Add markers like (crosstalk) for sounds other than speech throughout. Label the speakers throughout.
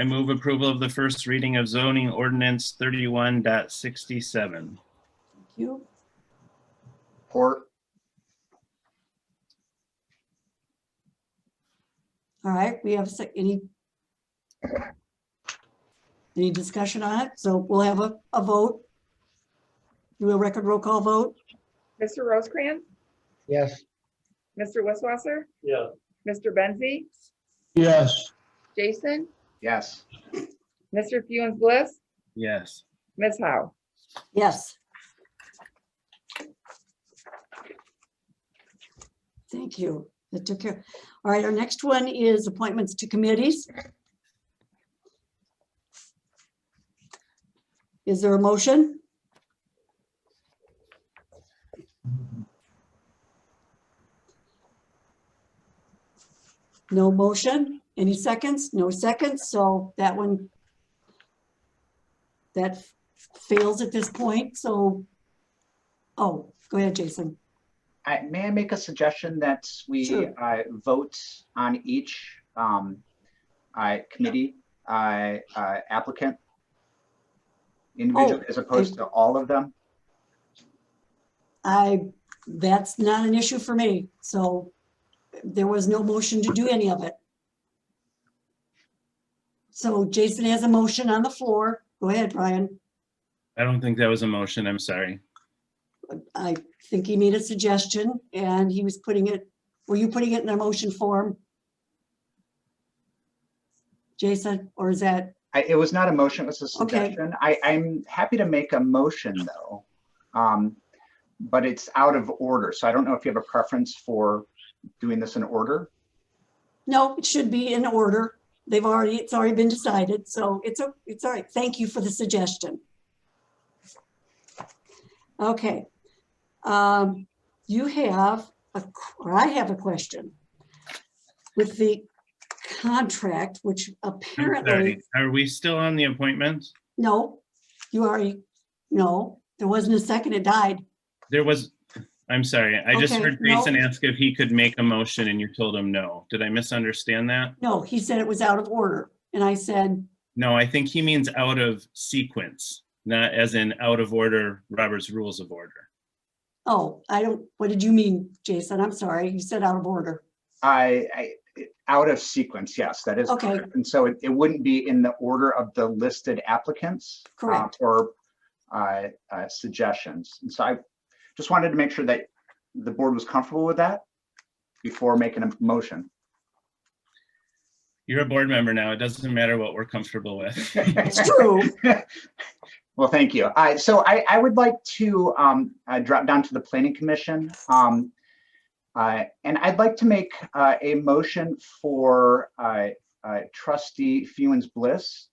Speaker 1: I move approval of the first reading of zoning ordinance 31.67.
Speaker 2: Thank you.
Speaker 3: Port,
Speaker 2: All right, we have se- any any discussion on it? So we'll have a, a vote. Do a record roll call vote?
Speaker 4: Mr. Rosecrans?
Speaker 3: yes.
Speaker 4: Mr. Wisswasser?
Speaker 5: Yeah.
Speaker 4: Mr. Benzi?
Speaker 5: Yes.
Speaker 4: Jason?
Speaker 3: Yes.
Speaker 4: Mr. Funes Bliss?
Speaker 1: Yes.
Speaker 4: Ms. Howe?
Speaker 2: Yes. Thank you. That took care. All right, our next one is appointments to committees. Is there a motion? No motion? Any seconds? No seconds, so that one that fails at this point, so, oh, go ahead, Jason.
Speaker 6: I, may I make a suggestion that we
Speaker 2: Sure.
Speaker 6: uh, vote on each um, uh, committee uh, uh, applicant?
Speaker 2: Oh,
Speaker 6: Individually, as opposed to all of them?
Speaker 2: I, that's not an issue for me, so there was no motion to do any of it. So Jason has a motion on the floor. Go ahead, Brian.
Speaker 1: I don't think that was a motion. I'm sorry.
Speaker 2: I think he made a suggestion and he was putting it, were you putting it in a motion form? Jason, or is that,
Speaker 6: I, it was not a motion, it was a
Speaker 2: Okay.
Speaker 6: suggestion. I, I'm happy to make a motion, though. Um, But it's out of order, so I don't know if you have a preference for doing this in order.
Speaker 2: no, it should be in order. They've already, it's already been decided, so it's, o- it's all right. Thank you for the suggestion. Okay. Um, you have, a qu- or I have a question. With the contract, which
Speaker 1: I'm sorry.
Speaker 2: apparently,
Speaker 1: Are we still on the appointment?
Speaker 2: no, you already, no, there wasn't a second, it died.
Speaker 1: There was, I'm sorry. I just
Speaker 2: Okay,
Speaker 1: heard
Speaker 2: no.
Speaker 1: Jason ask if he could make a motion and you told him no. Did I misunderstand that?
Speaker 2: No, he said it was out of order. And I said,
Speaker 1: No, I think he means out of sequence, not as in out of order, Robert's Rules of Order.
Speaker 2: oh, I don't, what did you mean, Jason? I'm sorry, you said out of order.
Speaker 6: I, I, it- out of sequence, yes, that is.
Speaker 2: Okay.
Speaker 6: correct. And so it, it wouldn't be in the order of the listed applicants. uh,
Speaker 2: Correct.
Speaker 6: Or, uh, uh, suggestions. And so I just wanted to make sure that the board was comfortable with that before making a motion.
Speaker 1: You're a board member now. It doesn't matter what we're comfortable with. (laughs)
Speaker 2: It's true.
Speaker 6: Well, thank you. I, so I, I would like to, um, uh, drop down to the planning commission. Um, uh, and I'd like to make, uh, a motion for, uh, uh, trustee Fewens Bliss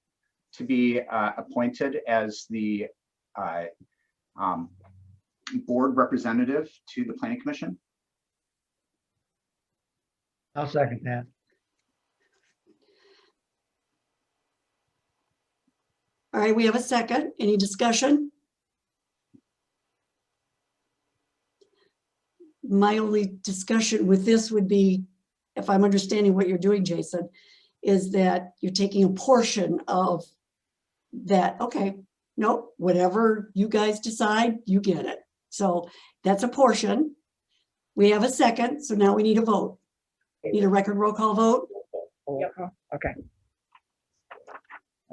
Speaker 6: to be, uh, appointed as the, uh, um, board representative to the planning commission.
Speaker 3: I'll second that.
Speaker 2: All right, we have a second. Any discussion? My only discussion with this would be, if I'm understanding what you're doing, Jason, is that you're taking a portion of that, okay, no, whatever you guys decide, you get it. So that's a portion. We have a second, so now we need a vote. Need a record roll call vote?
Speaker 4: Roll call. Okay.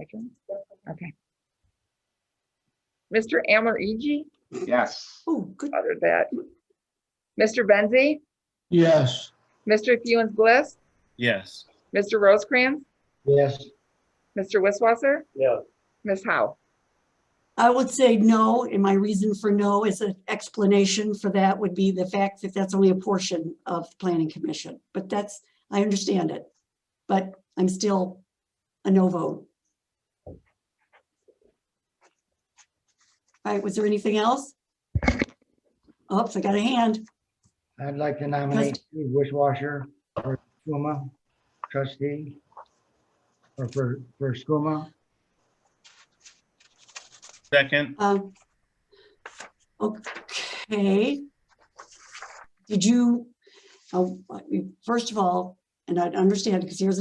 Speaker 4: I can- Okay. Mr. Amor Eg,
Speaker 6: Yes.
Speaker 2: Oh, good,
Speaker 4: other that. Mr. Benzi?
Speaker 5: Yes.
Speaker 4: Mr. Funes Bliss?
Speaker 1: Yes.
Speaker 4: Mr. Rosecrans?
Speaker 3: Yes.
Speaker 4: Mr. Wisswasser?
Speaker 5: Yeah.
Speaker 4: Ms. Howe?
Speaker 2: I would say no, and my reason for no is an explanation for that would be the fact that that's only a portion of the planning commission, but that's, I understand it. But I'm still a no vote. All right, was there anything else? Oops, I got a hand.
Speaker 3: I'd like to nominate Steve Wishwasher for SCUMA trustee. Or for, for SCUMA.
Speaker 1: Second,
Speaker 2: Um, Okay. Did you, oh, first of all, and I understand, because here's a